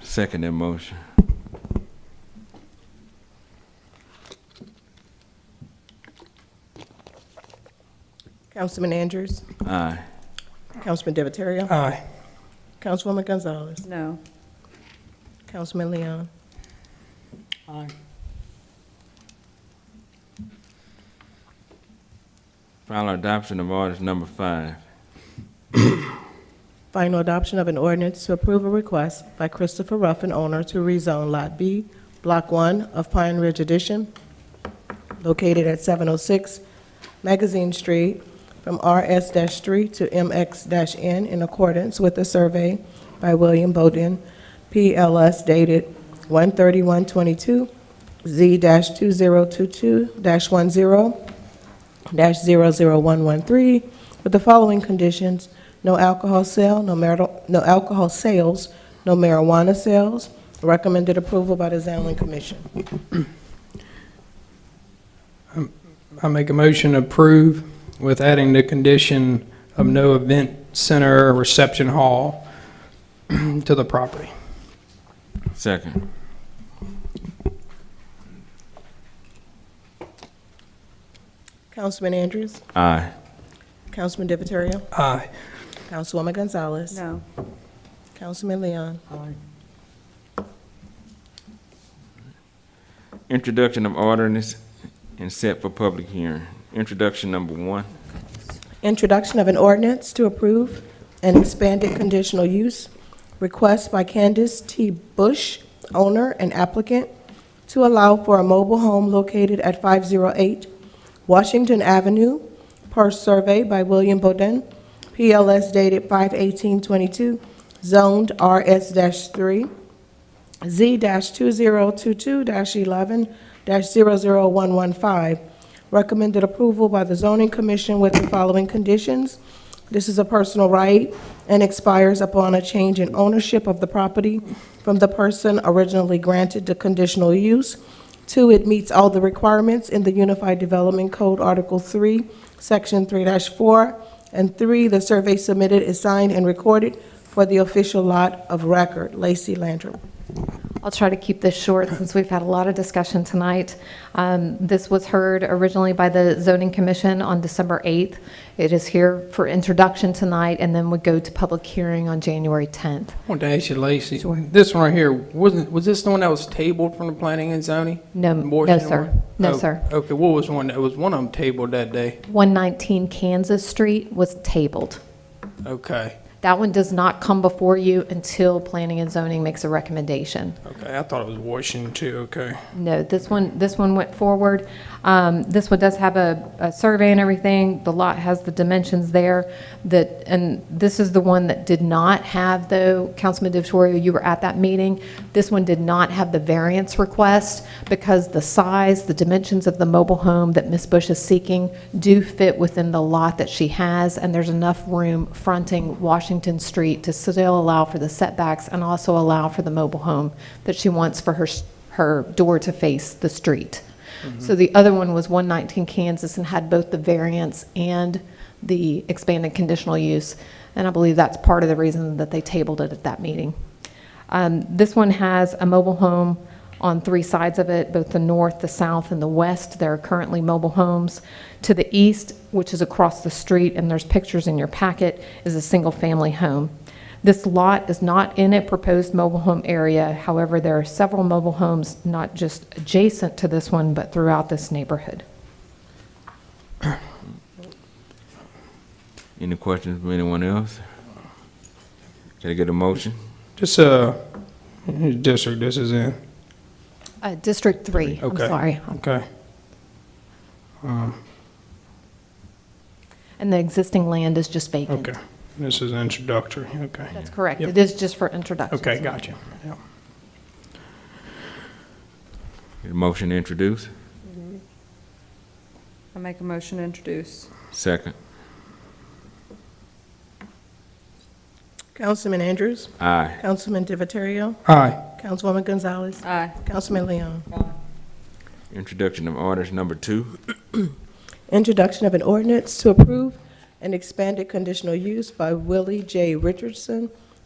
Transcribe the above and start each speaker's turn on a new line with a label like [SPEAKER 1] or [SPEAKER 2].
[SPEAKER 1] Second that motion.
[SPEAKER 2] Councilman Andrews.
[SPEAKER 1] Aye.
[SPEAKER 2] Councilman Divatario.
[SPEAKER 3] Aye.
[SPEAKER 2] Councilwoman Gonzalez.
[SPEAKER 4] No.
[SPEAKER 2] Councilman Leon.
[SPEAKER 3] Aye.
[SPEAKER 1] Final adoption of ordinance number five.
[SPEAKER 2] Final adoption of an ordinance to approve a request by Christopher Ruffin, owner, to rezone Lot B, Block 1 of Pine Ridge Addition, located at 706 Magazine Street, from RS-3 to MX-N in accordance with the survey by William Bowden, PLS dated 13122 z 2022 10 00113 with the following conditions: no alcohol sale, no marital, no alcohol sales, no marijuana sales. Recommended approval by the Zoning Commission.
[SPEAKER 3] I make a motion to approve with adding the condition of no event center or reception hall to the property.
[SPEAKER 1] Second.
[SPEAKER 2] Councilman Andrews,
[SPEAKER 1] Aye.
[SPEAKER 2] Councilman Divatario,
[SPEAKER 3] Aye.
[SPEAKER 2] Councilwoman Gonzalez.
[SPEAKER 4] No.
[SPEAKER 2] Councilman Leon.
[SPEAKER 1] Introduction of ordinance and set for public hearing. Introduction number one.
[SPEAKER 2] Introduction of an ordinance to approve an expanded conditional use request by Candace T. Bush, owner and applicant, to allow for a mobile home located at 508 Washington Avenue, per survey by William Bowden, PLS dated 5/18/22, zoned RS-3, Z-2022-11-00115. Recommended approval by the zoning commission with the following conditions. This is a personal right and expires upon a change in ownership of the property from the person originally granted the conditional use. Two, it meets all the requirements in the Unified Development Code, Article 3, Section 3-4. And three, the survey submitted is signed and recorded for the official lot of record, Lacey Landrum.
[SPEAKER 5] I'll try to keep this short since we've had a lot of discussion tonight. Um, This was heard originally by the Zoning Commission on December 8th. It is here for introduction tonight and then would go to public hearing on January 10th.
[SPEAKER 3] I want to ask you, Lacy, this one right here, wasn't, was this the one that was tabled from the planning and zoning?
[SPEAKER 5] No,
[SPEAKER 3] The Morrison
[SPEAKER 5] no, sir.
[SPEAKER 3] one?
[SPEAKER 5] No,
[SPEAKER 3] Oh,
[SPEAKER 5] sir.
[SPEAKER 3] Okay, what was one, that was one of them tabled that day?
[SPEAKER 5] 119 Kansas Street was tabled.
[SPEAKER 3] Okay,
[SPEAKER 5] That one does not come before you until Planning and Zoning makes a recommendation.
[SPEAKER 3] okay, I thought it was Washington too, okay.
[SPEAKER 5] No, this one, this one went forward. Um, This one does have a, a survey and everything. The lot has the dimensions there that, and this is the one that did not have, though, Councilman DeVitorio, you were at that meeting. This one did not have the variance request because the size, the dimensions of the mobile home that Ms. Bush is seeking do fit within the lot that she has, and there's enough room fronting Washington Street to still allow for the setbacks and also allow for the mobile home that she wants for her, s- her door to face the street. So the other one was 119 Kansas and had both the variance and the expanded conditional use. And I believe that's part of the reason that they tabled it at that meeting. Um, This one has a mobile home on three sides of it, both the north, the south, and the west. There are currently mobile homes. To the east, which is across the street, and there's pictures in your packet, is a single-family home. This lot is not in a proposed mobile home area. However, there are several mobile homes, not just adjacent to this one, but throughout this neighborhood.
[SPEAKER 1] Any questions from anyone else? Can I get a motion?
[SPEAKER 3] Just, uh, district this is in,
[SPEAKER 5] Uh, District 3, I'm
[SPEAKER 3] Okay.
[SPEAKER 5] sorry.
[SPEAKER 3] okay.
[SPEAKER 5] And the existing land is just vacant.
[SPEAKER 3] Okay, this is introductory, okay.
[SPEAKER 5] That's correct.
[SPEAKER 3] Yep.
[SPEAKER 5] It is just for introduction.
[SPEAKER 3] Okay, gotcha, yeah.
[SPEAKER 1] Get a motion to introduce?
[SPEAKER 4] I make a motion to introduce.
[SPEAKER 1] Second.
[SPEAKER 2] Councilman Andrews,
[SPEAKER 1] Aye.
[SPEAKER 2] Councilman Divatario,
[SPEAKER 3] Aye.
[SPEAKER 2] Councilwoman Gonzalez,
[SPEAKER 4] Aye.
[SPEAKER 2] Councilman Leon.
[SPEAKER 1] Introduction of ordinance number two.
[SPEAKER 2] Introduction of an ordinance to approve an expanded conditional use by Willie J. Richardson,